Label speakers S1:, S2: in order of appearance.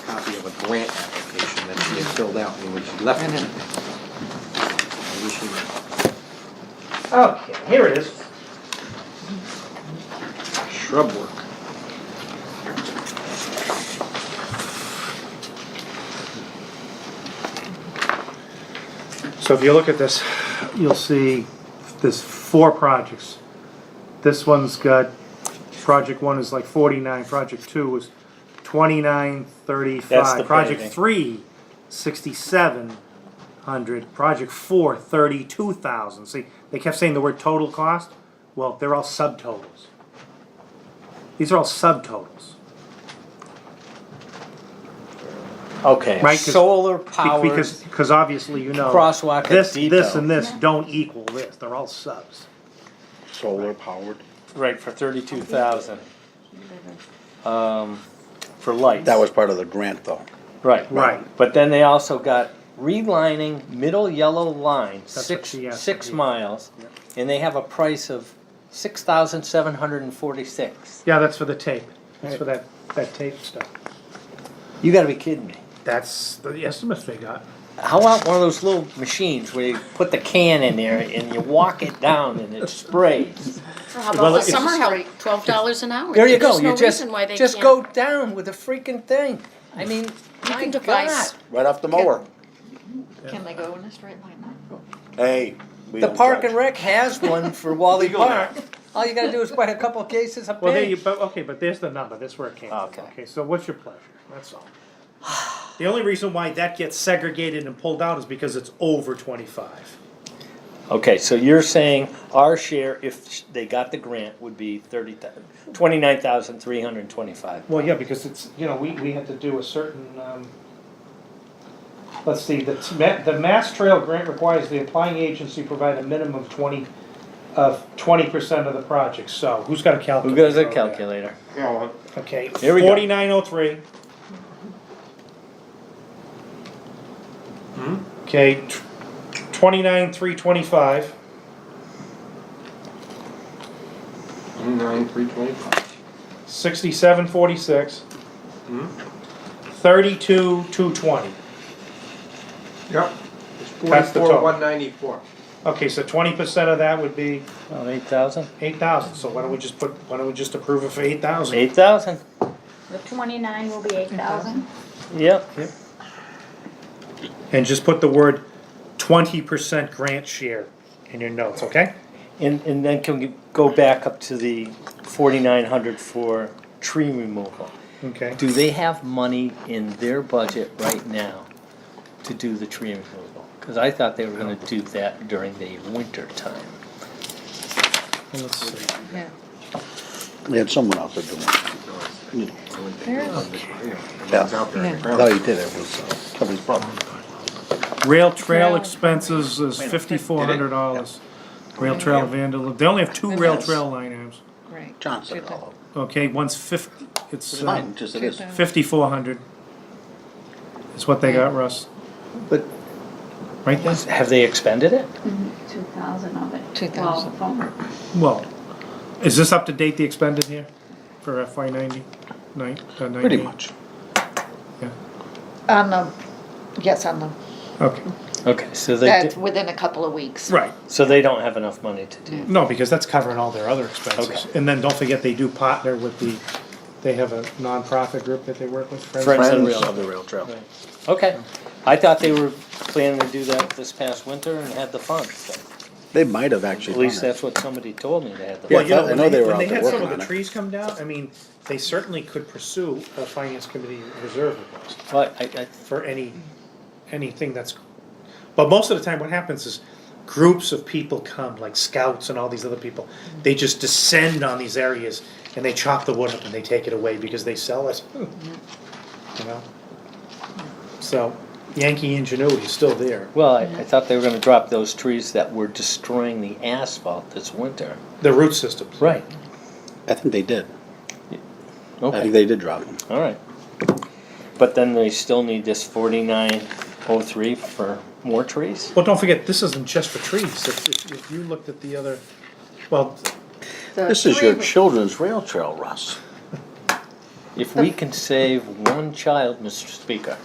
S1: copy of a grant application that she had filled out when she left. it. I wish you-
S2: Okay, here it is.
S1: Shrub work.
S3: So if you look at this, you'll see there's four projects. This one's got, project one is like forty-nine, project two is twenty-nine,
S2: That's the
S3: thirty-five.
S2: paving.
S3: Project three, sixty-seven hundred, project four, thirty-two thousand. See, they kept saying the word total cost, well, they're all subtotals. These are all subtotals.
S2: Okay,
S3: Right, 'cause-
S2: solar
S3: Be-
S2: powered
S3: Because, because obviously you know.
S2: crosswalk at
S3: This, this and
S2: Depot.
S3: this don't equal this, they're all subs.
S4: Solar powered.
S2: Right, for thirty-two thousand. Um, for lights.
S4: That was part of the grant though.
S2: Right.
S3: Right.
S2: But then they also got relining middle yellow line,
S3: what
S2: six,
S3: she asked
S2: six
S3: me.
S2: miles. And they have a price of six thousand seven hundred and forty-six.
S3: Yeah, that's for the tape, that's for that, that tape stuff.
S2: You gotta be kidding me.
S3: That's the estimates they got.
S2: How about one of those little machines where you put the can in there and you walk it down and it sprays?
S5: Or how
S3: Well,
S5: about the
S3: it's a
S5: summer help, twelve dollars an hour?
S2: There you go,
S5: There's no
S2: you just,
S5: reason why they
S2: just
S5: can't-
S2: go down with a freaking thing. I mean,
S5: You
S2: my
S5: can devise,
S2: God.
S4: Right off the mower.
S6: Can they go in a straight line now?
S4: Hey. we
S2: The
S4: don't
S2: Park
S4: judge.
S2: and Rec has one for Wally Park. All you gotta do is buy a couple of cases of
S3: Well, there you,
S2: paint.
S3: but, okay, but there's the number, that's where it came from,
S2: Okay.
S3: Oh, okay, so what's your pleasure, that's all. The only reason why that gets segregated and pulled out is because it's over twenty-five.
S2: Okay, so you're saying our share, if they got the grant, would be thirty thousand, twenty-nine thousand three hundred and twenty-five.
S3: Well, yeah, because it's, you know, we, we had to do a certain, um, let's see, the, t- ma- the Mass Trail Grant requires the applying agency provide a minimum of twenty, of twenty percent of the project, so who's got a
S2: Who
S3: calculator?
S2: goes to
S3: over there?
S2: calculator?
S3: Okay,
S2: Here we go.
S3: forty-nine oh three.
S2: Hmm?
S3: Okay, twenty-nine, three twenty-five,
S1: Nine, three, twenty-five.
S3: sixty-seven, forty-six, thirty-two, two twenty.
S1: Yep.
S3: That's the
S1: Forty-four,
S3: total.
S1: one ninety-four.
S3: Okay, so twenty percent of that would be
S2: Oh, eight thousand?
S3: eight thousand, so why don't we just put, why don't we just approve it for eight thousand?
S2: Eight thousand,
S7: The twenty-nine will be eight thousand.
S6: Thousand?
S2: yep.
S3: And just put the word twenty percent grant share in your notes, okay?
S2: And, and then can we go back up to the forty-nine hundred for tree removal?
S3: Okay.
S2: Do they have money in their budget right now to do the tree removal? Cause I thought they were gonna do that during the winter time.
S3: Let's see.
S5: Yeah.
S4: We had someone out there doing it. I thought he did it, it was uh, somebody's brother.
S3: Rail trail expenses is fifty-four hundred dollars. Rail trail vandalism, they only have two rail trail line items.
S5: Right.
S4: John said it all.
S3: Okay, one's fifty, it's
S4: It's fine,
S3: uh,
S4: just it is.
S3: fifty-four hundred. Is what they got, Russ,
S4: But
S3: right there?
S2: Have they expended it?
S6: Two thousand of it.
S5: 2,000.
S6: Well, from-
S3: Well, is this up to date, the expended here, for FY ninety, nine, uh, ninety?
S4: pretty much.
S7: On the, yes, on the,
S3: Okay,
S2: Okay, so they,
S7: that's
S2: di-
S7: within a couple of weeks.
S3: right,
S2: so they don't have enough money to do.
S3: no, because that's covering all their other expenses.
S2: Okay.
S3: And then don't forget, they do partner with the, they have a nonprofit group that they work with, Friends
S2: Friends and
S4: Friends
S2: Rail.
S4: of the rail trail.
S2: Okay, I thought they were planning to do that this past winter and had the funds, so
S4: They might have
S2: at
S4: actually
S2: least
S4: done it.
S2: that's what somebody told me they had the
S3: Well,
S4: Yeah.
S2: funds.
S3: you know,
S4: I
S3: when
S4: know
S3: they,
S4: they were
S3: when
S4: out
S3: they
S4: there
S3: had some
S4: working
S3: of the
S4: on it.
S3: trees come down, I mean, they certainly could pursue a finance committee reserve request
S2: But I, I,
S3: for any, anything that's. But most of the time, what happens is groups of people come, like scouts and all these other people. They just descend on these areas and they chop the wood up and they take it away because they sell it. You know? So Yankee ingenuity is still there.
S2: well, I, I thought they were gonna drop those trees that were destroying the asphalt this winter.
S3: The root systems.
S2: Right.
S4: I think they did. I think
S2: Okay,
S4: they did drop them.
S2: all right. But then they still need this forty-nine oh three for more trees?
S3: Well, don't forget, this isn't just for trees. If, if, if you looked at the other, well,
S2: Uh,
S4: This is your children's rail trail, Russ.
S2: If we can save one child, Mr. Speaker,